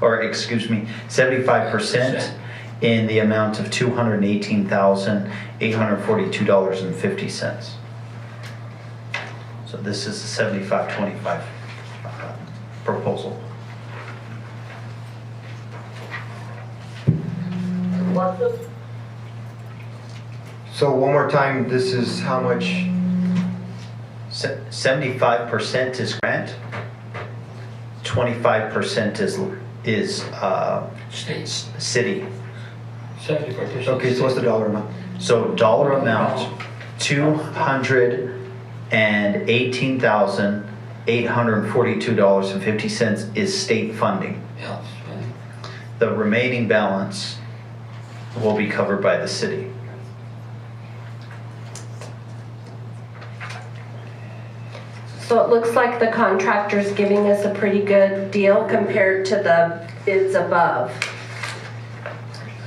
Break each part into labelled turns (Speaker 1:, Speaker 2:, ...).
Speaker 1: or excuse me, seventy-five percent in the amount of two hundred and eighteen thousand, eight hundred and forty-two dollars and fifty cents. So this is a seventy-five, twenty-five uh, proposal.
Speaker 2: What's the
Speaker 3: So one more time, this is how much,
Speaker 1: Seventy-five percent is grant, twenty-five percent is, is, uh,
Speaker 4: States.
Speaker 1: s- city.
Speaker 4: Seventy percent.
Speaker 3: okay, so what's the dollar amount?
Speaker 1: So dollar amount, two hundred and eighteen thousand, eight hundred and forty-two dollars and fifty cents is state funding.
Speaker 4: Yeah, that's right.
Speaker 1: The remaining balance will be covered by the city.
Speaker 2: So it looks like the contractor's giving us a pretty good deal compared to the bids above.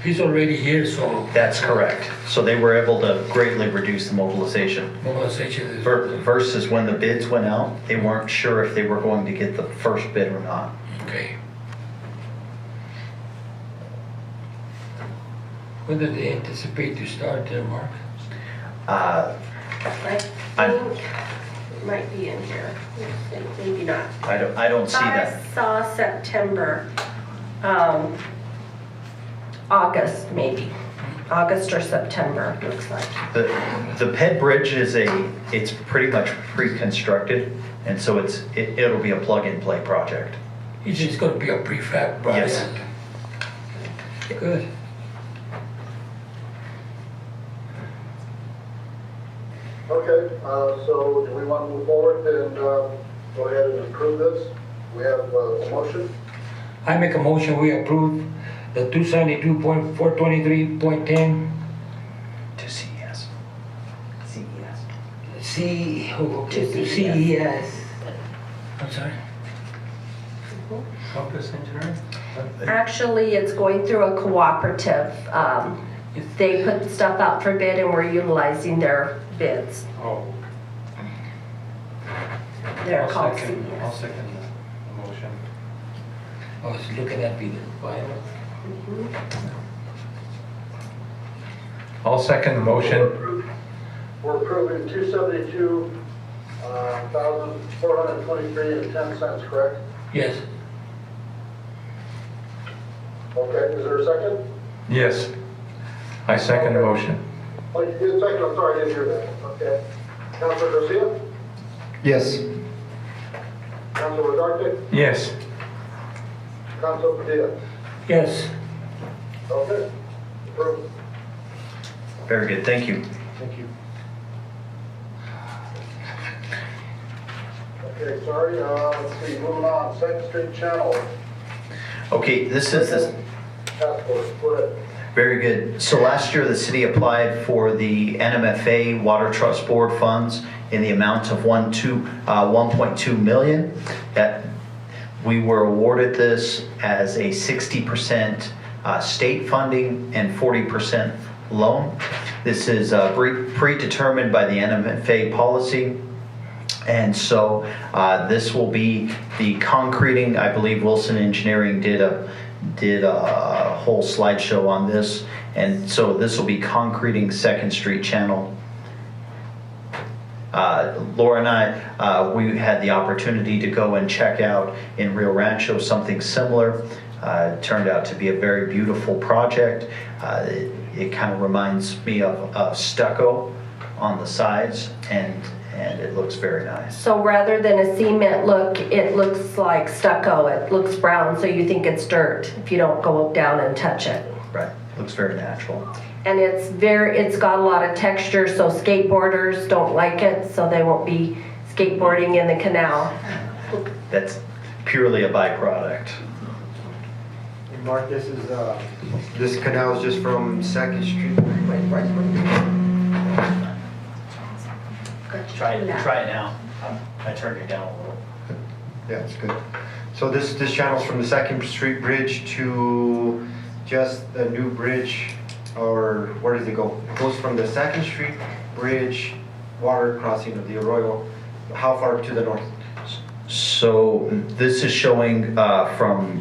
Speaker 4: He's already here, so
Speaker 1: That's correct. So they were able to greatly reduce the mobilization.
Speaker 4: mobilization is.
Speaker 1: Ver- Versus when the bids went out, they weren't sure if they were going to get the first bid or not.
Speaker 4: Okay. When did they anticipate to start their mark?
Speaker 1: Uh,
Speaker 2: I
Speaker 1: I'm-
Speaker 2: think it might be in here, maybe not.
Speaker 1: I don't, I don't see
Speaker 2: I
Speaker 1: that.
Speaker 2: saw September, um, August maybe, August or September, it looks like.
Speaker 1: The, the Ped Bridge is a, it's pretty much pre-constructed, and so it's, it, it'll be a plug-and-play project.
Speaker 4: It's just gonna be a prefab project.
Speaker 1: Yes.
Speaker 4: Good.
Speaker 5: Okay, uh, so do we want to move forward and uh, go ahead and approve this? We have uh, a motion.
Speaker 4: I make a motion, we approve the two seventy-two point four twenty-three point ten
Speaker 1: To CES. CES.
Speaker 4: C, oh, okay,
Speaker 2: To
Speaker 4: E to CES. I'm sorry? Compass Engineering?
Speaker 2: Actually, it's going through a cooperative. Um, They put stuff out for bid and we're utilizing their bids.
Speaker 6: Oh.
Speaker 2: They're
Speaker 6: I'll
Speaker 2: called
Speaker 6: second- I'll
Speaker 2: CES.
Speaker 6: second the motion.
Speaker 4: I was Oh, looking at the environment.
Speaker 6: I'll second the
Speaker 5: We're
Speaker 6: motion.
Speaker 5: approving- We're approving two seventy-two uh, thousand four hundred twenty-three and ten cents, correct?
Speaker 4: Yes,
Speaker 5: Okay, is there a second?
Speaker 6: Yes. I second the motion.
Speaker 5: Oh, you did second, I'm sorry, I didn't hear that. Okay. Counselor Garcia?
Speaker 3: Yes.
Speaker 5: Counselor Redarte?
Speaker 6: Yes.
Speaker 5: Counselor Padilla?
Speaker 4: yes.
Speaker 5: Okay, approved.
Speaker 1: Very good, thank you.
Speaker 3: Thank you.
Speaker 5: Okay, sorry, uh, let's see, moving on, Second Street Channel
Speaker 1: Okay, this is, this,
Speaker 5: Task Force, go ahead.
Speaker 1: Very good. So last year, the city applied for the NMFA Water Trust Board funds in the amount of one two, uh, 1.2 million. That, we were awarded this as a 60% uh, state funding and 40% loan. This is uh, pre- predetermined by the NMFA policy. And so uh, this will be the concreting. I believe Wilson Engineering did a did a whole slideshow on this, and so this will be concreting Second Street Channel. Uh, Laura and I, uh, we had the opportunity to go and check out in Rio Rancho something similar. Uh, it turned out to be a very beautiful project. Uh, it it kind of reminds me of, of stucco on the sides, and and it looks very nice.
Speaker 2: So rather than a cement look, it looks like stucco, it looks brown, so you think it's dirt if you don't go down and touch it.
Speaker 1: Right, looks very natural.
Speaker 2: And it's very, it's got a lot of texture, so skateboarders don't like it, so they won't be skateboarding in the canal.
Speaker 1: That's purely a byproduct.
Speaker 3: And Mark, this is, uh, this canal is just from Second Street. Wait, why is my-
Speaker 1: try it now. I turned it down a little.
Speaker 3: Yeah, it's good. So this, this channel's from the Second Street Bridge to just the new bridge, or where does it go? It goes from the Second Street Bridge, water crossing of the Arroyo, how far to the north?
Speaker 1: So this is showing uh, from